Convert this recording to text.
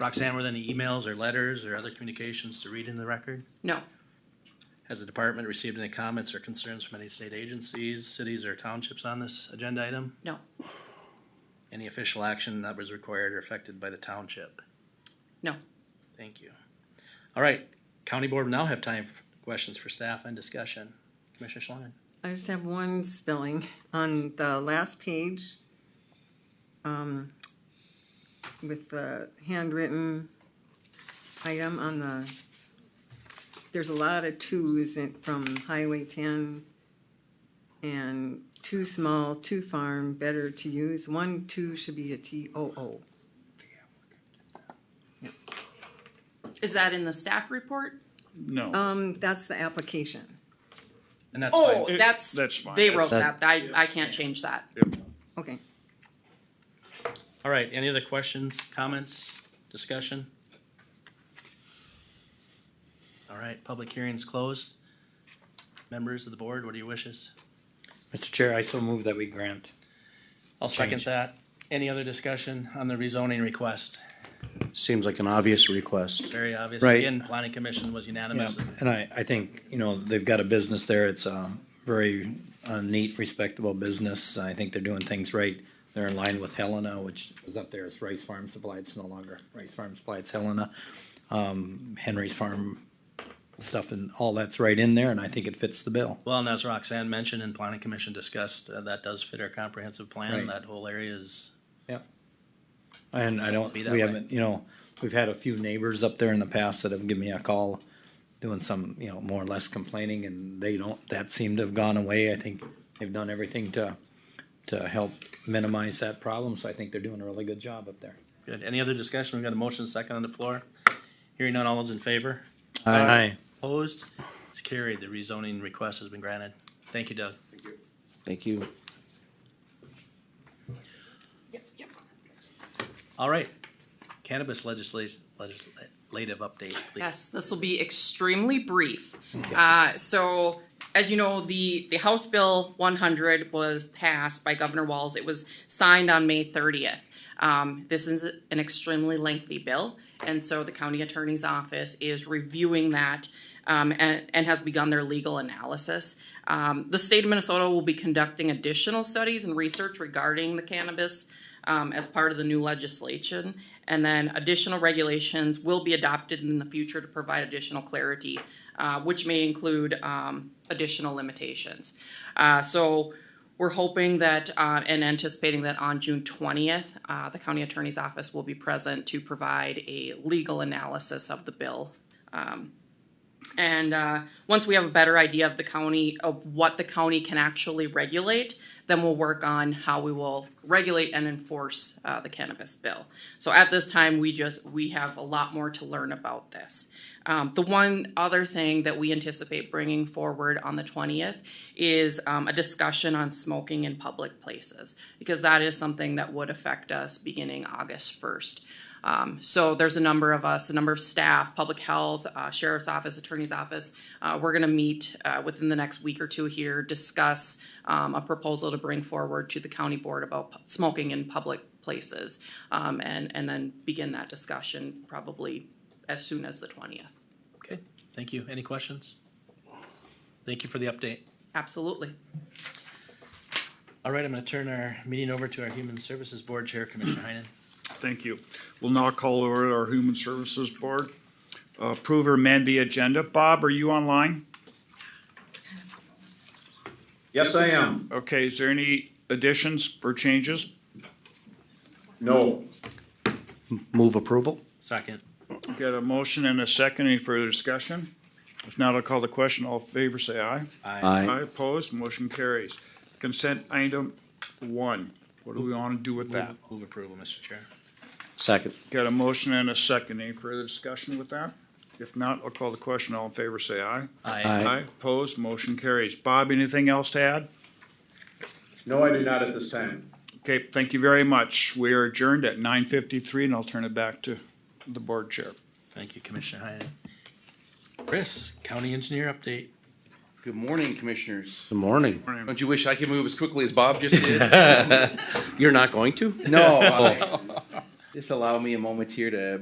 Roxanne, were there any emails or letters or other communications to read in the record? No, Has the department received any comments or concerns from any state agencies, cities, or townships on this agenda item? no, Any official action that was required or affected by the township? no. Thank you. All right, county board will now have time for questions for staff and discussion. Commissioner Schlangen? I just have one spelling on the last page. Um, with the handwritten item on the, there's a lot of twos in, from Highway ten. And too small, too farm, better to use, one, two should be a T O O. Is that in the staff report? No, Um, that's the application, And that's Oh, fine. It- that's, that's fine. they That's- wrote that, I, I can't change that. okay. All right, any other questions, comments, discussion? All right, public hearing's closed. Members of the board, what are your wishes? Mr. Chair, I so move that we grant. I'll second Change. that. Any other discussion on the rezoning request? Seems like an obvious request. Very obvious. Right. Again, planning commission was unanimous. And I, I think, you know, they've got a business there. It's a very uh, neat, respectable business. I think they're doing things right. They're in line with Helena, which is up there. It's Rice Farm Supply. It's no longer Rice Farm Supply. It's Helena. Um, Henry's Farm stuff and all that's right in there, and I think it fits the bill. Well, and as Roxanne mentioned and planning commission discussed, uh, that does fit our comprehensive plan. Right. That whole area is, Yep. And I don't, Be that we way. haven't, you know, we've had a few neighbors up there in the past that have given me a call doing some, you know, more or less complaining and they don't, that seemed to have gone away. I think they've done everything to, to help minimize that problem, so I think they're doing a really good job up there. good. Any other discussion? We've got a motion second on the floor. Hearing none, all those in favor? Aye. Opposed? It's carried. The rezoning request has been granted. Thank you, Doug. Thank you. All right. Cannabis legislation, legislative update, please. Yes, this will be extremely brief. Uh, so, as you know, the, the House Bill one hundred was passed by Governor Walz. It was signed on May thirtieth. Um, this is an extremely lengthy bill, and so the county attorney's office is reviewing that um, and, and has begun their legal analysis. Um, the state of Minnesota will be conducting additional studies and research regarding the cannabis um, as part of the new legislation. And then additional regulations will be adopted in the future to provide additional clarity, uh, which may include um, additional limitations. Uh, so we're hoping that uh, and anticipating that on June 20th, uh, the county attorney's office will be present to provide a legal analysis of the bill and uh, once we have a better idea of the county, of what the county can actually regulate, then we'll work on how we will regulate and enforce uh, the cannabis bill. So at this time, we just, we have a lot more to learn about this. Um, the one other thing that we anticipate bringing forward on the 20th is um, a discussion on smoking in public places, because that is something that would affect us beginning August 1st. Um, so there's a number of us, a number of staff, public health, uh, sheriff's office, attorney's office. Uh, we're going to meet uh, within the next week or two here, discuss um, a proposal to bring forward to the county board about pu- smoking in public places, um, and and then begin that discussion probably as soon as the twentieth. Okay, thank you. Any questions? Thank you for the update. Absolutely. All right, I'm gonna turn our meeting over to our Human Services Board Chair, Commissioner Heinen. thank you. We'll now call over our Human Services Board. Approve or amend the agenda. Bob, are you online? Yes, I am. Okay, is there any additions or changes? No. Move approval? Second. Got a motion and a second. Any further discussion? If not, I'll call the question. All in favor, say aye. Aye, opposed, motion carries. Consent item one. What do we want to do with that? Move approval, Mr. Chair. Second. Got a motion and a second. Any further discussion with that? If not, I'll call the question. All in favor, say aye. Aye. Aye, opposed, motion carries. Bob, anything else to add? No, I do not at this time. Okay, thank you very much. We are adjourned at nine fifty-three, and I'll turn it back to the board chair. Thank you, Commissioner Heinen. Chris, County Engineer update. Good morning, commissioners. Good morning. Don't you wish I could move as quickly as Bob just did? You're not going to? Oh. No. I- Just allow me a moment here to